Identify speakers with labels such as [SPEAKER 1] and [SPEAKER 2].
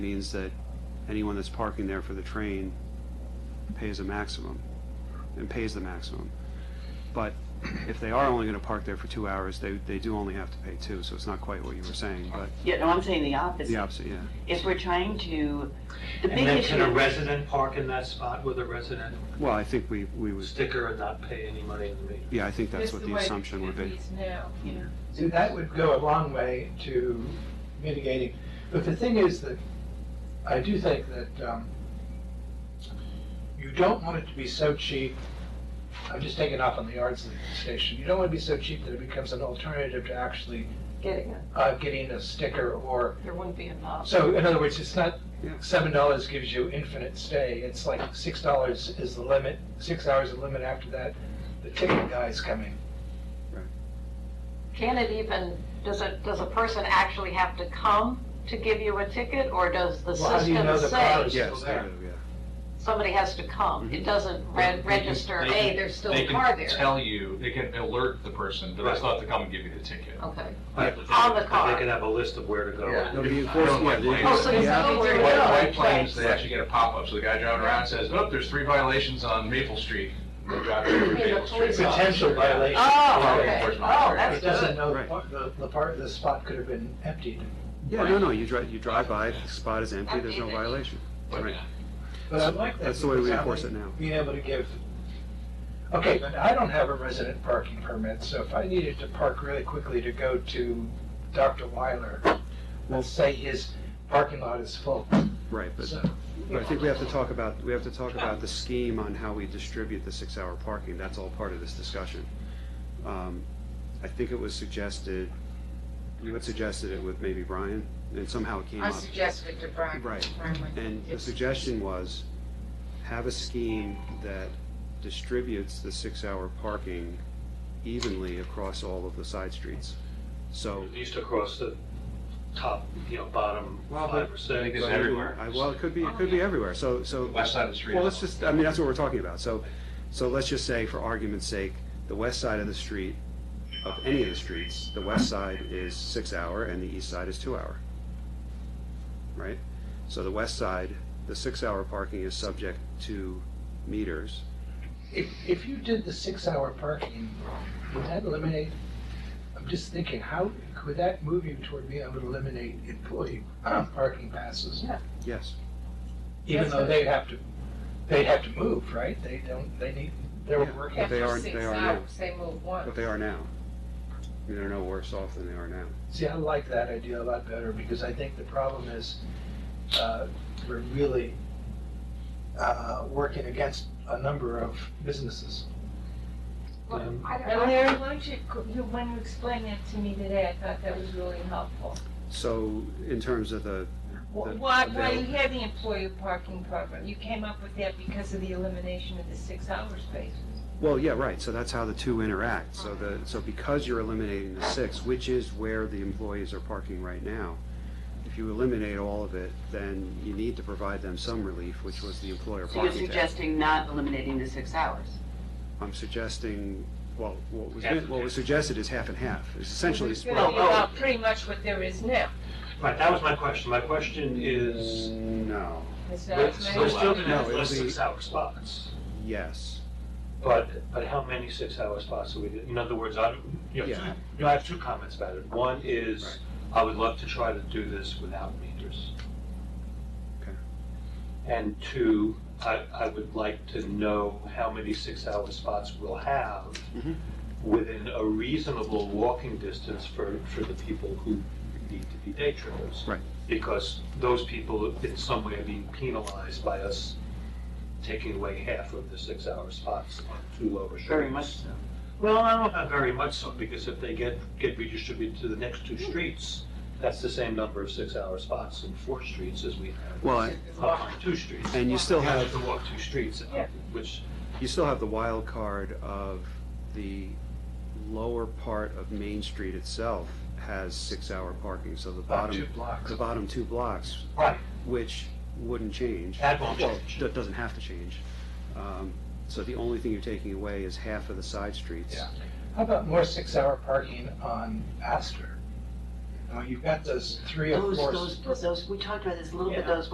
[SPEAKER 1] means that anyone that's parking there for the train pays a maximum, and pays the maximum. But if they are only gonna park there for two hours, they, they do only have to pay two, so it's not quite what you were saying, but
[SPEAKER 2] Yeah, no, I'm saying the
[SPEAKER 1] the
[SPEAKER 2] opposite.
[SPEAKER 1] opposite, yeah.
[SPEAKER 2] If we're trying to, the
[SPEAKER 3] And
[SPEAKER 2] big
[SPEAKER 3] then can a
[SPEAKER 2] issue,
[SPEAKER 3] resident park in that spot with a resident
[SPEAKER 1] Well, I think we, we would,
[SPEAKER 3] sticker and not pay any money in the meter?
[SPEAKER 1] yeah, I think that's what the
[SPEAKER 4] way
[SPEAKER 1] assumption would
[SPEAKER 4] it
[SPEAKER 1] be.
[SPEAKER 4] reads now, you know.
[SPEAKER 5] See, that would go a long way to mitigating, but the thing is that, I do think that, um, you don't want it to be so cheap, I'm just taking off on the Ardsley station, you don't want it to be so cheap that it becomes an alternative to actually,
[SPEAKER 4] Getting it,
[SPEAKER 5] uh, getting a sticker or,
[SPEAKER 4] there wouldn't be enough.
[SPEAKER 5] so in other words, it's not,
[SPEAKER 1] Yeah.
[SPEAKER 5] seven dollars gives you infinite stay, it's like six dollars is the limit, six hours is the limit, after that, the ticket guy's coming.
[SPEAKER 6] Can it even, does it, does a person actually have to come to give you a ticket, or does the
[SPEAKER 5] Well, how do you know
[SPEAKER 6] system
[SPEAKER 5] the car
[SPEAKER 6] say
[SPEAKER 5] is still
[SPEAKER 1] Yes,
[SPEAKER 5] there?
[SPEAKER 1] yeah.
[SPEAKER 6] somebody has to come? It doesn't re- register,
[SPEAKER 7] Mhm. They can-
[SPEAKER 6] hey, there's still a car
[SPEAKER 7] They can
[SPEAKER 6] there.
[SPEAKER 7] tell you, they can alert the person, but they still have to come and give you the ticket.
[SPEAKER 6] Okay.
[SPEAKER 3] But
[SPEAKER 6] On the car.
[SPEAKER 3] They can have a list of where to
[SPEAKER 5] Yeah.
[SPEAKER 3] go.
[SPEAKER 1] There'll be
[SPEAKER 7] I don't like
[SPEAKER 1] enforcement, yeah,
[SPEAKER 7] planes.
[SPEAKER 6] Oh, so
[SPEAKER 1] the-
[SPEAKER 6] there's
[SPEAKER 1] the app-
[SPEAKER 6] no where to
[SPEAKER 7] White, White
[SPEAKER 6] go.
[SPEAKER 7] Plains, they actually get a pop-up, so the guy driving around says, oh, there's three violations on Maple Street. They drive over
[SPEAKER 6] mean the
[SPEAKER 7] Maple Street.
[SPEAKER 6] police officer.
[SPEAKER 5] Potential violation.
[SPEAKER 6] Oh,
[SPEAKER 7] Law
[SPEAKER 6] okay,
[SPEAKER 7] enforcement
[SPEAKER 6] oh,
[SPEAKER 7] officer.
[SPEAKER 6] that's
[SPEAKER 5] It doesn't
[SPEAKER 6] good.
[SPEAKER 5] know the
[SPEAKER 1] Right.
[SPEAKER 5] part, the, the part, the spot could have been emptied.
[SPEAKER 1] yeah, no, no, you drive, you drive by, if the spot is empty, there's no violation.
[SPEAKER 7] But,
[SPEAKER 1] Right.
[SPEAKER 5] But I like that.
[SPEAKER 1] That's the way we
[SPEAKER 5] because I
[SPEAKER 1] enforce
[SPEAKER 5] like
[SPEAKER 1] it now.
[SPEAKER 5] Being able to give, okay, but I don't have a resident parking permit, so if I needed to park really quickly to go to Dr. Weiler, let's say his parking lot is full,
[SPEAKER 1] Right, but,
[SPEAKER 5] so.
[SPEAKER 1] but I think we have to talk about, we have to talk about the scheme on how we distribute the six-hour parking, that's all part of this discussion. Um, I think it was suggested, you had suggested it with maybe Brian, and somehow it came
[SPEAKER 4] I
[SPEAKER 1] up.
[SPEAKER 4] suggested to Brian.
[SPEAKER 1] Right.
[SPEAKER 4] Brian went,
[SPEAKER 1] And the
[SPEAKER 4] "It's-
[SPEAKER 1] suggestion was, have a scheme that distributes the six-hour parking evenly across all of the side streets. So.
[SPEAKER 3] At least across the top, you know, bottom
[SPEAKER 1] Well, but-
[SPEAKER 3] five
[SPEAKER 7] I think
[SPEAKER 3] percent.
[SPEAKER 7] it's everywhere.
[SPEAKER 1] I- Well, it could be, it could be everywhere, so, so.
[SPEAKER 7] West side of the street.
[SPEAKER 1] Well, let's just, I mean, that's what we're talking about, so, so let's just say, for argument's sake, the west side of the street, of any of the streets, the west side is six hour and the east side is two hour. Right? So the west side, the six hour parking is subject to meters.
[SPEAKER 5] If, if you did the six-hour parking, would that eliminate, I'm just thinking, how, could that move you toward being able to eliminate employee uh, parking passes?
[SPEAKER 1] Yes,
[SPEAKER 5] Even though they have to, they have to move, right? They don't, they need, they're
[SPEAKER 1] Yeah.
[SPEAKER 5] working.
[SPEAKER 1] But they
[SPEAKER 4] After
[SPEAKER 1] are-
[SPEAKER 4] six
[SPEAKER 1] they are now.
[SPEAKER 4] hours, they move
[SPEAKER 1] but
[SPEAKER 4] once.
[SPEAKER 1] they are now. I mean, They're no worse off than they are now.
[SPEAKER 5] See, I like that idea a lot better because I think the problem is uh, we're really uh, working against a number of businesses.
[SPEAKER 6] Well,
[SPEAKER 1] Mm-hmm.
[SPEAKER 6] I don't-
[SPEAKER 4] And Larry, why don't you, you- when you explained that to me today, I thought that was really helpful.
[SPEAKER 1] So, in terms of the,
[SPEAKER 4] Wh-
[SPEAKER 1] The-
[SPEAKER 4] Why,
[SPEAKER 1] the
[SPEAKER 4] why you
[SPEAKER 1] bill.
[SPEAKER 4] had the employer parking program, you came up with that because of the elimination of the six-hour spaces.
[SPEAKER 1] Well, yeah, right, so that's how the two interact, so the, so because you're eliminating the six, which is where the employees are parking right now, if you eliminate all of it, then you need to provide them some relief, which was the employer
[SPEAKER 2] so you're
[SPEAKER 1] parking tax.
[SPEAKER 2] suggesting not eliminating the six hours?
[SPEAKER 1] I'm suggesting, well, what was,
[SPEAKER 3] Half and
[SPEAKER 1] what was
[SPEAKER 3] half.
[SPEAKER 1] suggested is half and half, is essentially
[SPEAKER 4] It's
[SPEAKER 1] split.
[SPEAKER 4] gonna be
[SPEAKER 3] Well,
[SPEAKER 4] about pretty much what there is now.
[SPEAKER 3] Right, that was my question. My question is,
[SPEAKER 1] No,
[SPEAKER 4] Is that
[SPEAKER 3] we're
[SPEAKER 4] what you meant?
[SPEAKER 3] still gonna have
[SPEAKER 1] No, it'll
[SPEAKER 3] less
[SPEAKER 1] be-
[SPEAKER 3] six-hour spots.
[SPEAKER 1] yes,
[SPEAKER 3] But, but how many six-hour spots do we, do? in other words, I, you know, two-
[SPEAKER 1] Yeah.
[SPEAKER 3] you know, I have two comments about it. One
[SPEAKER 1] Right.
[SPEAKER 3] is, I would love to try to do this without meters.
[SPEAKER 1] Okay.
[SPEAKER 3] And two, I, I would like to know how many six-hour spots we'll have
[SPEAKER 1] Mhm.
[SPEAKER 3] within a reasonable walking distance for, for the people who need to be day trippers.
[SPEAKER 1] Right.
[SPEAKER 3] Because those people in some way are being penalized by us taking away half of the six-hour spots on two lower streets.
[SPEAKER 2] Very much so.
[SPEAKER 3] Well, I don't know about very much so, because if they get, get redistributed to the next two streets, that's the same number of six-hour spots in four streets as we have
[SPEAKER 1] well, I-
[SPEAKER 3] up on two streets.
[SPEAKER 1] and you still
[SPEAKER 3] You
[SPEAKER 1] have,
[SPEAKER 3] have to walk two streets, uh,
[SPEAKER 4] Yeah.
[SPEAKER 3] which,
[SPEAKER 1] you still have the wild card of the lower part of Main Street itself has six-hour parking, so the
[SPEAKER 5] About two
[SPEAKER 1] bottom,
[SPEAKER 5] blocks.
[SPEAKER 1] the bottom two blocks
[SPEAKER 3] right,
[SPEAKER 1] which wouldn't change.
[SPEAKER 3] That won't
[SPEAKER 1] Well,
[SPEAKER 3] change.
[SPEAKER 1] That doesn't have to change. Um, So the only thing you're taking away is half of the side streets.
[SPEAKER 5] Yeah. How about more six-hour parking on Astor?
[SPEAKER 8] Now, you've got those three or
[SPEAKER 5] Those,
[SPEAKER 8] four.
[SPEAKER 5] those, those, we talked about this a little bit,
[SPEAKER 2] Yeah.
[SPEAKER 5] those